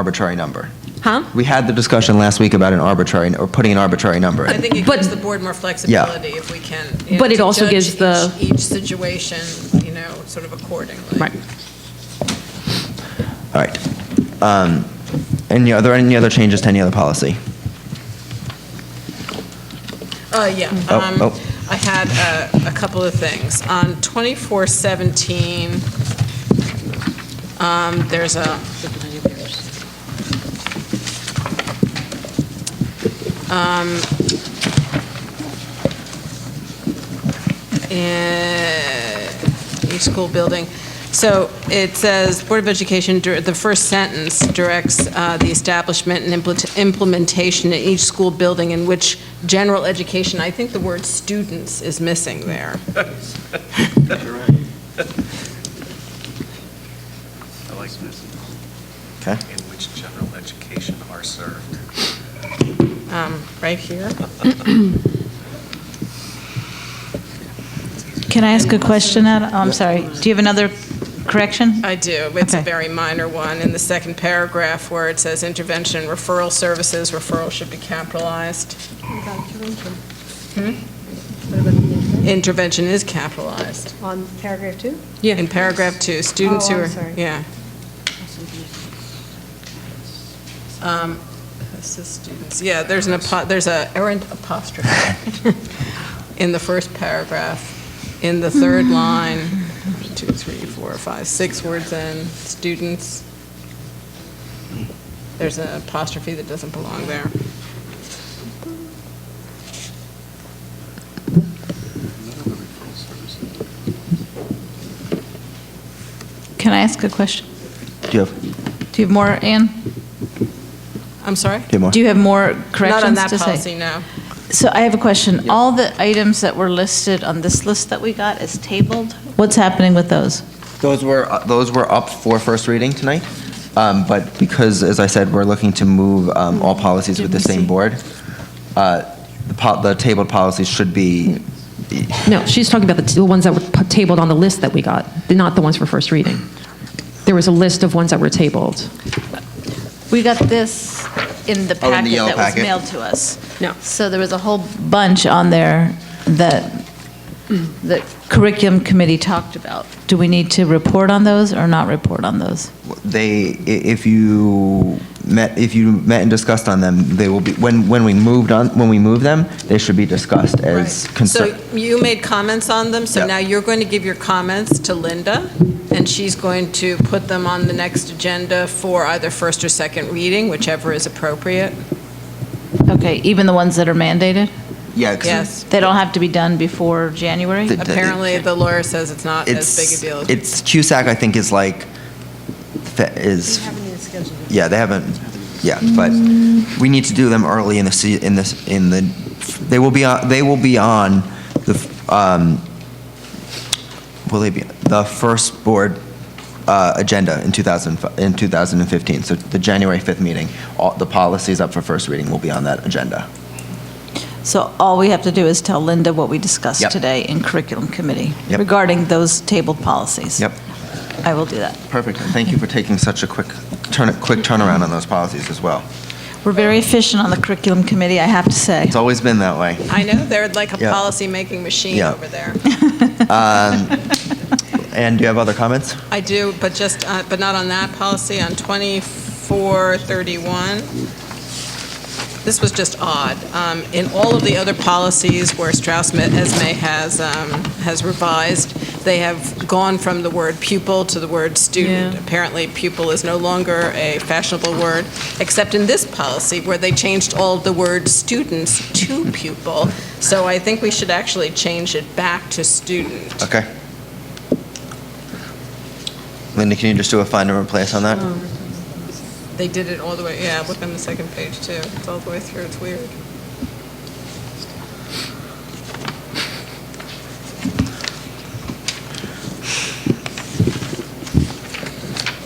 arbitrary number. Huh? We had the discussion last week about an arbitrary, or putting an arbitrary number I in. think it But- gives the board more flexibility if we can. you know, But it to also judge gives the- each- Each situation, you know, sort of accordingly. Right. All right. Um, Any, are there any other changes to any other policy? Uh, yeah. Oh, um, oh. I had uh, a couple of things. On 2417, um, there's a, um, eh, each school building. So it says, Board of Education, dir- the first sentence directs uh, the establishment and implement- implementation in each school building in which general education, I think the word students is missing there. I like this. Okay. In which general education are served. Um, Right here? Can I ask a question, Adam? Oh, I'm sorry. Do you have another correction? I do. It's a Okay. very minor one. In the second paragraph where it says intervention referral services, referral should be capitalized. What about the- Intervention is capitalized. on paragraph two? In paragraph two, students who Oh, are. I'm sorry. Yeah. Um, this is students, yeah, there's an, apo- there's a errant apostrophe in the first paragraph. In the third line, two, three, four, five, six words in, students. There's an apostrophe that doesn't belong there. Can I ask a question? Do you have, do you Do you have more, Anne? I'm sorry? have more? Do you have more corrections to say? Not on that policy, no. So I have a question. All the items that were listed on this list that we got as tabled, what's happening with those? Those were, uh, those were up for first reading tonight, um, but because, as I said, we're looking to move um, all policies with the Didn't same see. board, uh, the po- the tabled policies should be, No, she's talking about the the ones that were p- tabled on the list that we got, not the ones for first reading. There was a list of ones that were tabled. We got this in the Oh, in the packet yellow that was packet? mailed to us. No. So there was a whole bunch on there that the curriculum committee talked about. Do we need to report on those or not report on those? they, i- if you met, if you met and discussed on them, they will be, when, when we moved on, when we move them, they should be discussed Right. as concern. So you made comments on them, so Yeah. now you're going to give your comments to Linda, and she's going to put them on the next agenda for either first or second reading, whichever is appropriate. Okay, even the ones that are mandated? Yeah, 'cause Yes. They don't have to be done before January? The- Apparently, the lawyer says it's not as big it's, a deal as... it's, CUSAC, I think, is like, fe- We is haven't even scheduled it. Yeah, they haven't, yeah, but we need to do them early in the, se- in this, in the, they will be, on. they will be on the, um, will they be, the first board uh, agenda in 2000, in 2015, so the January 5th meeting, all, the policies up for first reading will be on that agenda. So all we have to do is tell Linda what we discussed Yep. today in curriculum committee Yep. regarding those tabled policies. Yep, I will do that. perfect, and thank you for taking such a quick, turn, quick turnaround on those policies as well. We're very efficient on the curriculum committee, I have to say. It's always been that way. I know, they're like a Yeah. policy-making machine Yeah. over there. And do you have other comments? I do, but just, uh, but not on that policy, on 2431. This was just odd. Um, In all of the other policies where Strauss Ma- Esme has, um, has revised, they have gone from the word pupil to the word student. Apparently pupil is no longer a fashionable word, except in this policy where they changed all of the word students to pupil. So I think we should actually change it back to student. Okay. Linda, can you just do a find and replace on that? They did it all the way, yeah, look on the second page too. It's all the way through, it's weird.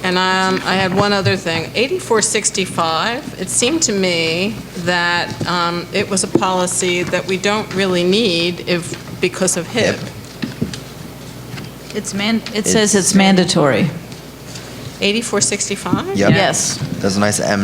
And um, I had one other thing. 8465, it seemed to me that um, it was a policy that we don't really need if, because of HIP. It's man, it says it's mandatory. 8465? Yep. Yes. There's a nice M